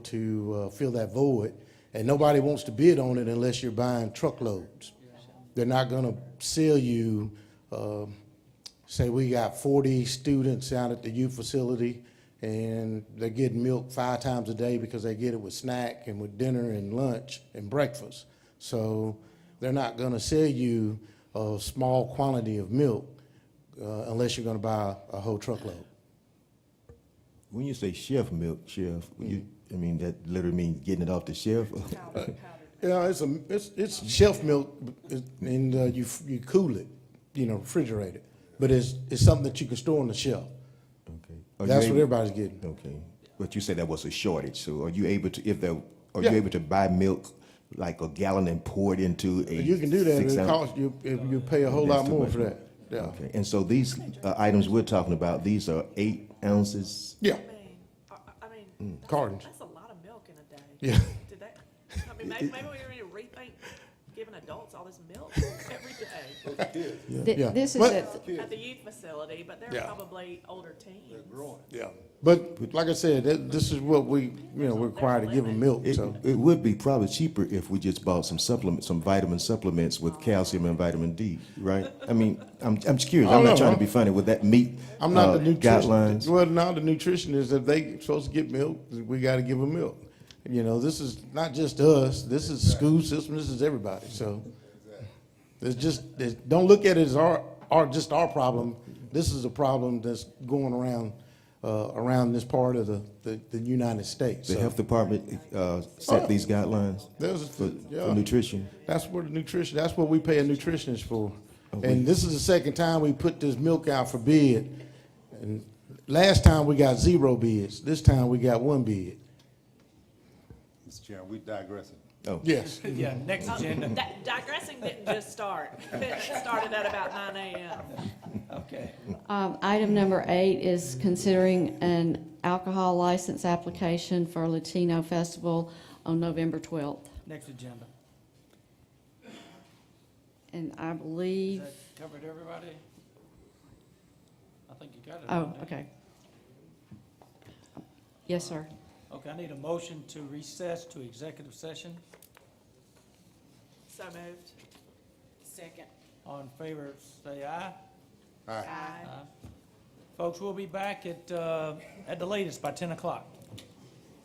to uh, fill that void, and nobody wants to bid on it unless you're buying truckloads. They're not gonna sell you, um, say, we got forty students out at the youth facility, and they're getting milk five times a day because they get it with snack and with dinner and lunch and breakfast. So they're not gonna sell you a small quantity of milk uh, unless you're gonna buy a whole truckload. When you say chef milk, chef, Mm. you, I mean, that literally means getting it off the shelf. Yeah, it's a it's it's shelf milk, it- and uh, you you cool it, you know, refrigerate it. But it's it's something that you can store on the shelf. Okay. Are Oh, you That's what able- everybody's getting. Okay. But you said that was a shortage, so are you able to, if there, are Yeah. you able to buy milk like a gallon and pour it into a? You can do that. six It ounce- costs you if you pay a whole That's lot too more much for that. Yeah, Okay, and so these uh, items we're talking about, these are eight ounces? yeah, mean, I I- I mean, that's, Mm, Cartons. that's a lot of milk in a day. Yeah. Did that, I mean, maybe, maybe we need to rethink giving adults all this milk every day Th- Yeah. This is But- a, at the youth facility, but they're Yeah. probably older teens. yeah. But like I said, that, this is what we you know we're required to give them milk. It, So it would be probably cheaper if we just bought some supplements, some vitamin supplements with calcium and vitamin D, right? I mean, I'm, I'm just curious, I I'm don't not trying know. to be funny, would that meet I'm not uh, the nutritionist. guidelines? Well, now the nutritionist, if they supposed to get milk, we got to give them milk. You know, this is not just us. This is school system. This is everybody. So it's just it's, don't look at it as our, our just our problem. This is a problem that's going around uh, around this part of the, the, the United States. The So health department uh, set these guidelines there's- for, yeah. for nutrition. That's what the nutrition. That's what we pay a nutritionist for. And this is the second time we put this milk out for bid. And last time we got zero bids. This time we got one bid. Mr. Chairman, we digressing. Oh, Yes. Yeah, next agenda, That digressing didn't just start. It started at about nine AM. okay. um, item number eight is considering an alcohol license application for Latino Festival on November 12th. Next agenda. And I Has believe, that covered everybody? I think you got it. oh, haven't you? okay. Yes, sir. Okay, I need a motion to recess to executive session. So moved. Second. All in favor, say aye. Aye. Folks, we'll be back at, uh, at the latest by ten o'clock.